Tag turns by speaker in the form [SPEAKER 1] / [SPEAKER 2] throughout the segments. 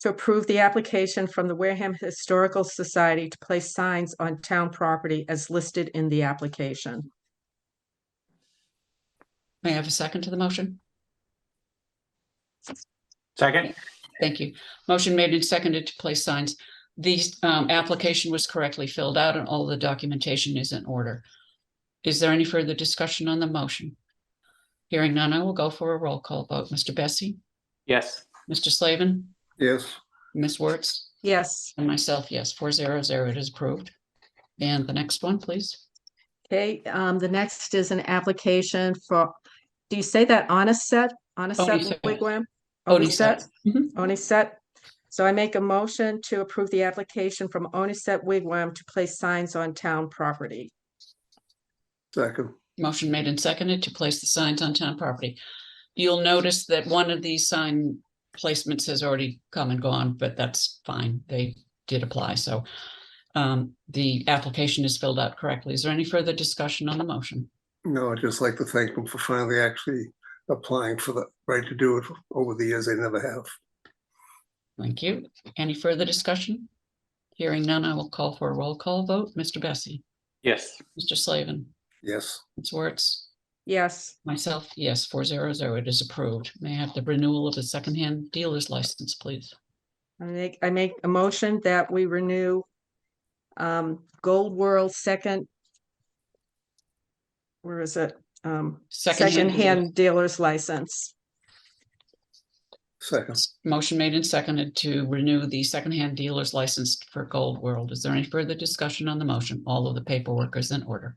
[SPEAKER 1] to approve the application from the Wareham Historical Society to place signs on town property as listed in the application.
[SPEAKER 2] May I have a second to the motion?
[SPEAKER 3] Second?
[SPEAKER 2] Thank you. Motion made and seconded to place signs. The um, application was correctly filled out and all the documentation is in order. Is there any further discussion on the motion? Hearing none, I will go for a roll call vote. Mr. Bessie,
[SPEAKER 3] Yes.
[SPEAKER 2] Mr. Slavin,
[SPEAKER 4] yes,
[SPEAKER 2] Ms. Wertz,
[SPEAKER 1] Yes,
[SPEAKER 2] and myself, yes, four zero zero, it is approved. And the next one, please.
[SPEAKER 1] okay, um, the next is an application for, do you say that Onset, Onset
[SPEAKER 2] Onisset.
[SPEAKER 1] Wigwam?
[SPEAKER 2] Odisette. Mhm.
[SPEAKER 1] Onset. So I make a motion to approve the application from Onset Wigwam to place signs on town property.
[SPEAKER 4] second,
[SPEAKER 2] Motion made and seconded to place the signs on town property. You'll notice that one of these sign placements has already come and gone, but that's fine. They did apply, so um, the application is filled out correctly. Is there any further discussion on the motion?
[SPEAKER 4] no, I'd just like to thank them for finally actually applying for the right to do it over the years, they never have.
[SPEAKER 2] Thank you. Any further discussion? Hearing none, I will call for a roll call vote. Mr. Bessie,
[SPEAKER 3] Yes.
[SPEAKER 2] Mr. Slavin,
[SPEAKER 4] Yes,
[SPEAKER 2] Ms. Wertz,
[SPEAKER 1] Yes,
[SPEAKER 2] myself, yes, four zero zero, it is approved. May I have the renewal of the secondhand dealer's license, please?
[SPEAKER 1] I make, I make a motion that we renew um, Gold World second. Where is it? Um, secondhand dealer's license.
[SPEAKER 4] second,
[SPEAKER 2] Motion made and seconded to renew the secondhand dealer's license for Gold World. Is there any further discussion on the motion? All of the paperwork is in order.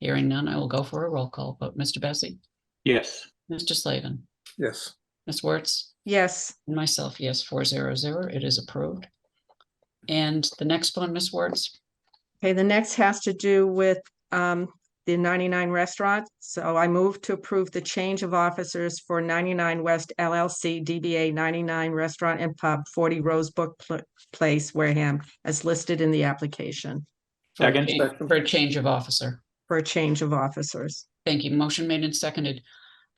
[SPEAKER 2] Hearing none, I will go for a roll call vote. Mr. Bessie?
[SPEAKER 3] Yes.
[SPEAKER 2] Mr. Slavin?
[SPEAKER 4] yes,
[SPEAKER 2] Ms. Wertz?
[SPEAKER 1] Yes,
[SPEAKER 2] And myself, yes, four zero zero. It is approved. And the next one, Ms. Wertz?
[SPEAKER 1] okay, the next has to do with um, the ninety-nine restaurant. So I move to approve the change of officers for ninety-nine West LLC DBA ninety-nine Restaurant and Pub, forty Rosebrook Pl- Place, Wareham, as listed in the application
[SPEAKER 2] for a
[SPEAKER 3] Second.
[SPEAKER 2] change- For a change of officer.
[SPEAKER 1] for a change of officers.
[SPEAKER 2] Thank you. Motion made and seconded.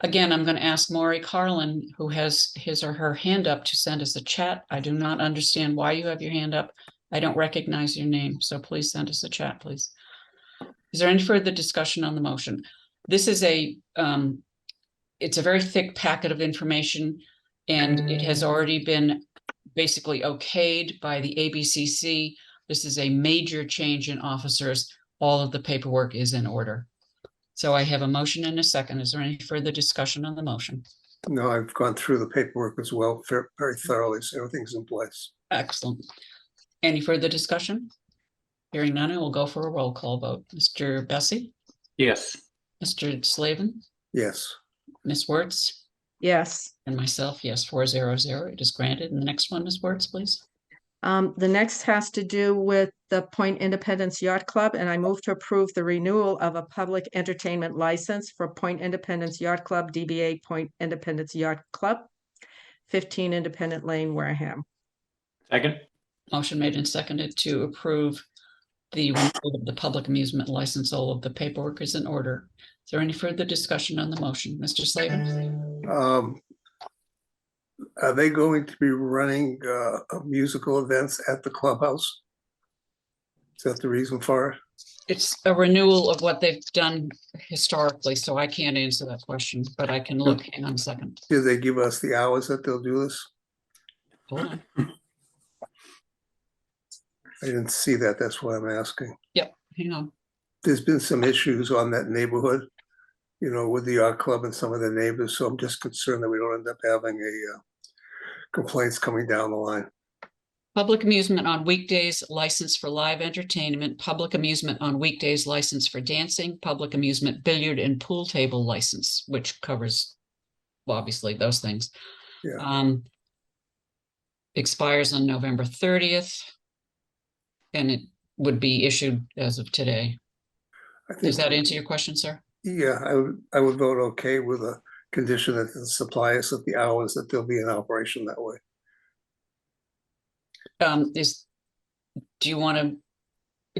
[SPEAKER 2] Again, I'm going to ask Maury Carlin, who has his or her hand up, to send us a chat. I do not understand why you have your hand up. I don't recognize your name, so please send us a chat, please. Is there any further discussion on the motion? This is a, um, it's a very thick packet of information, and it has already been basically okayed by the ABCC. This is a major change in officers. All of the paperwork is in order. So I have a motion and a second. Is there any further discussion on the motion?
[SPEAKER 4] no, I've gone through the paperwork as well, ver- very thoroughly, so everything's in place.
[SPEAKER 2] Excellent. Any further discussion? Hearing none, I will go for a roll call vote. Mr. Bessie,
[SPEAKER 3] Yes.
[SPEAKER 2] Mr. Slavin,
[SPEAKER 4] Yes,
[SPEAKER 2] Ms. Wertz,
[SPEAKER 1] Yes.
[SPEAKER 2] and myself, yes, four zero zero. It is granted. And the next one, Ms. Wertz, please.
[SPEAKER 1] Um, the next has to do with the Point Independence Yacht Club, and I move to approve the renewal of a public entertainment license for Point Independence Yacht Club, DBA Point Independence Yacht Club, fifteen Independent Lane, Wareham.
[SPEAKER 3] Second?
[SPEAKER 2] Motion made and seconded to approve the renewal of the public amusement license. All of the paperwork is in order. Is there any further discussion on the motion? Mr. Slavin?
[SPEAKER 4] um. Are they going to be running uh musical events at the clubhouse? Is that the reason for it?
[SPEAKER 2] It's a renewal of what they've done historically, so I can't answer that question, but I can look, hang on a second.
[SPEAKER 4] Did they give us the hours that they'll do this?
[SPEAKER 2] Hold on.
[SPEAKER 4] I didn't see that, that's why I'm asking.
[SPEAKER 2] Hang on.
[SPEAKER 4] there's been some issues on that neighborhood, you know, with the yacht club and some of the neighbors, so I'm just concerned that we don't end up having a uh, complaints coming down the line.
[SPEAKER 2] Public amusement on weekdays, license for live entertainment, public amusement on weekdays, license for dancing, public amusement billiard and pool table license, which covers well, obviously those things.
[SPEAKER 4] Yeah.
[SPEAKER 2] Um, expires on November thirtieth. And it would be issued as of today.
[SPEAKER 4] I think-
[SPEAKER 2] Does that answer your question, sir?
[SPEAKER 4] Yeah, I would, I would vote okay with a condition that the suppliers at the hours that they'll be in operation that way.
[SPEAKER 2] Um, is, do you want to,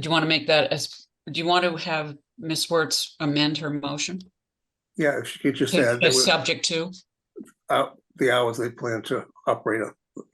[SPEAKER 2] do you want to make that as, do you want to have Ms. Wertz amend her motion?
[SPEAKER 4] Yeah, if you could just
[SPEAKER 2] To-
[SPEAKER 4] add that
[SPEAKER 2] to
[SPEAKER 4] with
[SPEAKER 2] Subject to?
[SPEAKER 4] the hours they plan to operate on.